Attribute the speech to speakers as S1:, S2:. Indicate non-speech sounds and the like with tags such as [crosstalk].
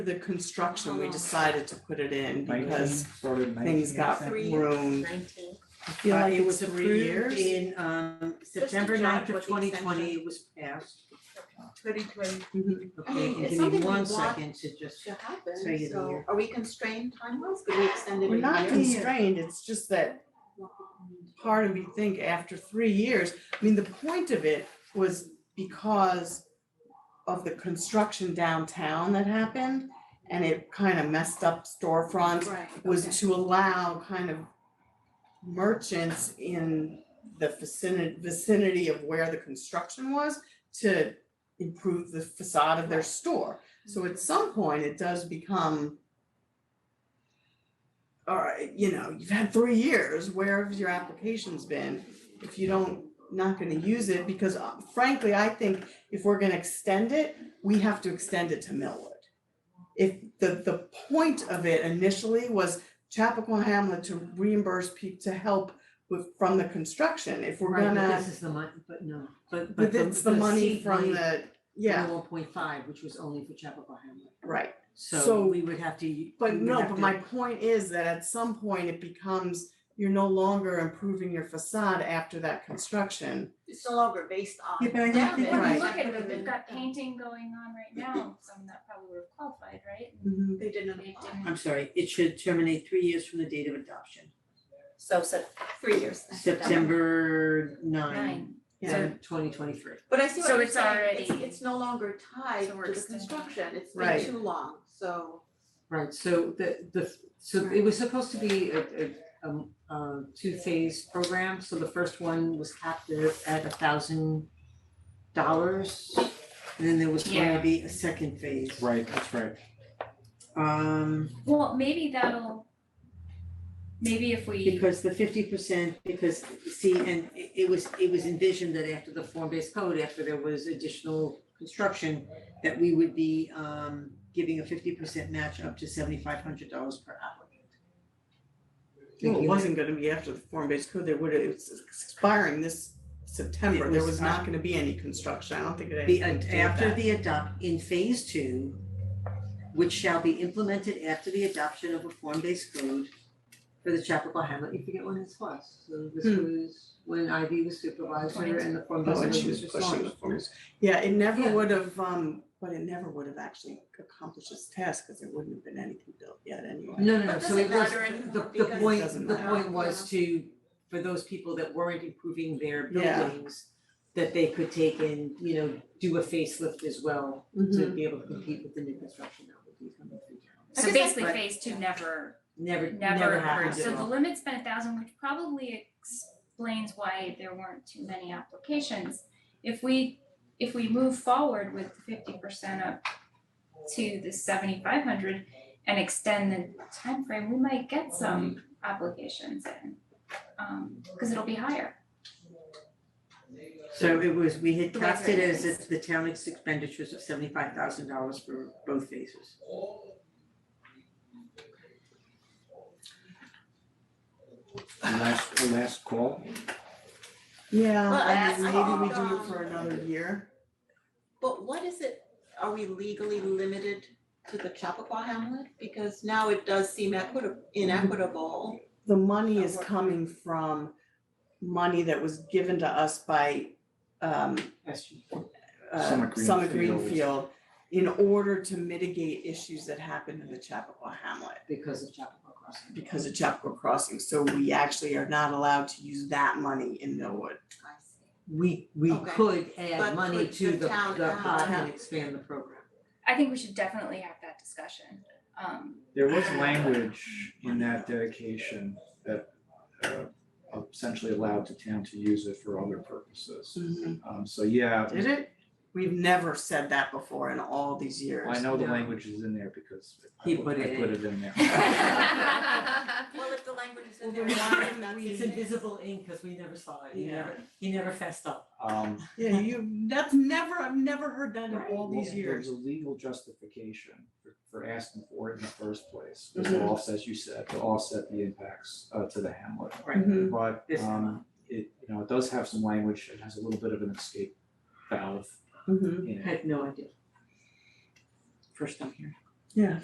S1: the construction, we decided to put it in because things
S2: things
S1: got
S3: Three.
S1: ruined.
S3: Nineteen.
S1: I feel like
S4: it
S1: it's
S4: was
S1: Uh, three
S4: approved
S1: years.
S4: in um
S3: to
S4: September
S3: check
S4: ninth
S3: what
S4: of
S3: the
S4: twenty twenty,
S3: extension-
S4: it was passed.
S3: Twenty twenty
S4: Okay,
S3: mean,
S4: and give
S3: it's
S4: me
S3: something we
S4: one
S3: want
S4: second to just,
S3: to
S4: Say
S3: happen,
S4: it
S3: so
S4: here.
S3: are we constrained time-wise? Could we extend it a
S1: We're
S3: year?
S1: not constrained, it's just that part of me think after three years, I mean, the point of it was because of the construction downtown that happened and it kind of messed up storefronts
S3: Right.
S1: was
S3: okay.
S1: to allow kind of merchants in the vicinity, vicinity of where the construction was to improve the facade of their store. So at some point, it does become, all right, you know, you've had three years, where have your applications been? If you don't, not gonna use it, because uh, frankly, I think if we're gonna extend it, we have to extend it to Millwood. If the, the point of it initially was Chappaqua Hamlet to reimburse people, to help with, from the construction, if we're
S4: right,
S1: gonna.
S4: but this is the money, but no, but but
S1: But
S4: the
S1: it's the money
S4: seed
S1: from
S4: money
S1: the,
S4: from
S1: yeah,
S4: the one point five, which was only for Chapel Hamlet.
S1: right. So-
S4: So we would have to,
S1: But
S4: we would
S1: no,
S4: have
S1: but
S4: to-
S1: my point is that at some point it becomes, you're no longer improving your facade after that construction.
S3: It's no longer based on.
S2: Yeah, but I don't
S5: Yeah,
S2: think
S5: but when
S1: Right.
S5: you look at them, they've got painting going on right now, some that probably were qualified, right? And
S1: Mm-hmm.
S3: They didn't
S5: They
S3: apply.
S5: didn't,
S4: I'm sorry, it should terminate three years from the date of adoption,
S3: So, so, three years. that's done.
S4: September nine,
S5: Nine.
S1: Yeah,
S4: twenty twenty three.
S3: But I see what
S5: So
S3: you're
S5: it's
S3: saying, it's,
S5: already-
S3: it's no longer tied
S5: So
S3: to
S5: we're
S3: the
S5: extending.
S3: construction, it's
S1: Right.
S3: been too long, so.
S4: Right, so the the, so it was supposed to be a a um a two-phase program, so the first one was capped at at a thousand dollars. And then there was going to
S5: Yeah.
S4: be a second phase.
S2: Right, that's right.
S4: Um,
S5: well, maybe that'll, maybe if we,
S4: because the fifty percent, because see, and it it was, it was envisioned that after the form-based code, after there was additional construction, that we would be um giving a fifty percent match up to seventy-five hundred dollars per applicant.
S1: well,
S4: Thinking
S1: it
S4: that-
S1: wasn't gonna be after the form-based code, there would, it's expiring this September,
S4: It
S1: there
S4: was
S1: was not
S4: not-
S1: gonna be any construction, I don't think it had
S4: The,
S1: anything to do with
S4: after
S1: that.
S4: the adopt, in phase two, which shall be implemented after the adoption of a form-based code for the Chapel Hamlet, you forget when this was, so this was when Ivy was supervisor and the
S1: Hmm. Oh,
S4: form-based
S1: and
S4: code
S1: she
S4: was
S1: was pushing the
S4: responded.
S1: forms. Yeah, it never
S4: Yeah.
S1: would have, um, but it never would have actually accomplished its task, cause there wouldn't have been anything built yet anyway.
S4: No, no, no,
S3: But
S4: so
S3: does
S4: it
S3: it
S4: was,
S3: matter anymore?
S4: the, the
S3: Because-
S4: point,
S1: Doesn't
S4: the
S1: matter.
S4: point was to, for those people that weren't improving their
S1: Yeah.
S4: buildings, that they could take and, you know, do a facelift as well, to
S1: Mhm.
S4: be able to compete with the new construction that would be coming through town.
S3: I guess
S5: so basically
S3: that's-
S5: phase two never, never
S4: Never, never
S5: occurred,
S4: happened at
S5: so the
S4: all.
S5: limit's been a thousand, which probably explains why there weren't too many applications. If we, if we move forward with fifty percent up to the seventy-five hundred and extend the time frame, we might get some applications in. Um, cause it'll be higher.
S4: So it was, we had
S5: The way
S4: taxed it
S5: it
S4: as
S5: is.
S4: if the town expenditures of seventy-five thousand dollars for both phases.
S2: Last, last call.
S1: Yeah,
S3: Well,
S1: I mean,
S3: that's
S1: maybe we
S3: all,
S1: do it for
S3: um,
S1: another year.
S3: But what is it, are we legally limited to the Chappaqua Hamlet? Because now it does seem equitable, inequitable.
S1: the money is
S3: Of what?
S1: coming from money that was given to us by um uh,
S2: Summit
S1: Summit
S2: Greenfield.
S1: Greenfield in order to mitigate issues that happened in the Chappaqua Hamlet
S4: because of Chapel Crossing.
S1: because of Chappaqua Crossing, so we actually are not allowed to use that money in Millwood.
S3: I see.
S4: We, we
S3: Okay.
S4: could
S3: But
S4: add money
S3: could
S4: to
S3: the
S4: the, the
S3: town
S4: pot
S3: add-
S4: and expand the program.
S5: I think we should definitely have that discussion. Um, [laughs]
S2: There was language in that dedication that uh, essentially allowed the town to use it for other purposes.
S1: Hmm.
S2: Um, so yeah,
S1: Did it? We've never said that before in all these years.
S2: I know the
S4: Yeah.
S2: language is in there because I
S4: He
S2: put
S4: put
S2: I
S4: it
S2: put
S4: in.
S2: it in there.
S1: [laughs]
S3: Well, if the language is in
S4: Well,
S3: there,
S4: we-
S3: why isn't that
S4: It's
S3: in there?
S4: invisible ink, cause we never saw it, he
S1: Yeah.
S4: never, he never fessed up.
S2: Um,
S1: Yeah, you, that's never, I've never heard that in all
S2: Well,
S1: these years.
S2: There's a legal justification for for asking for it in the first place,
S1: Mm-hmm.
S2: which will offset, as you said, to offset the impacts uh to the hamlet.
S4: Right.
S1: Mhm.
S2: But
S4: This
S2: um it, you know, it does have some language, it has a little bit of an escape valve
S1: Mhm.
S4: Mm-hmm.
S2: in it.
S4: Had no idea. First time here.
S1: Yeah.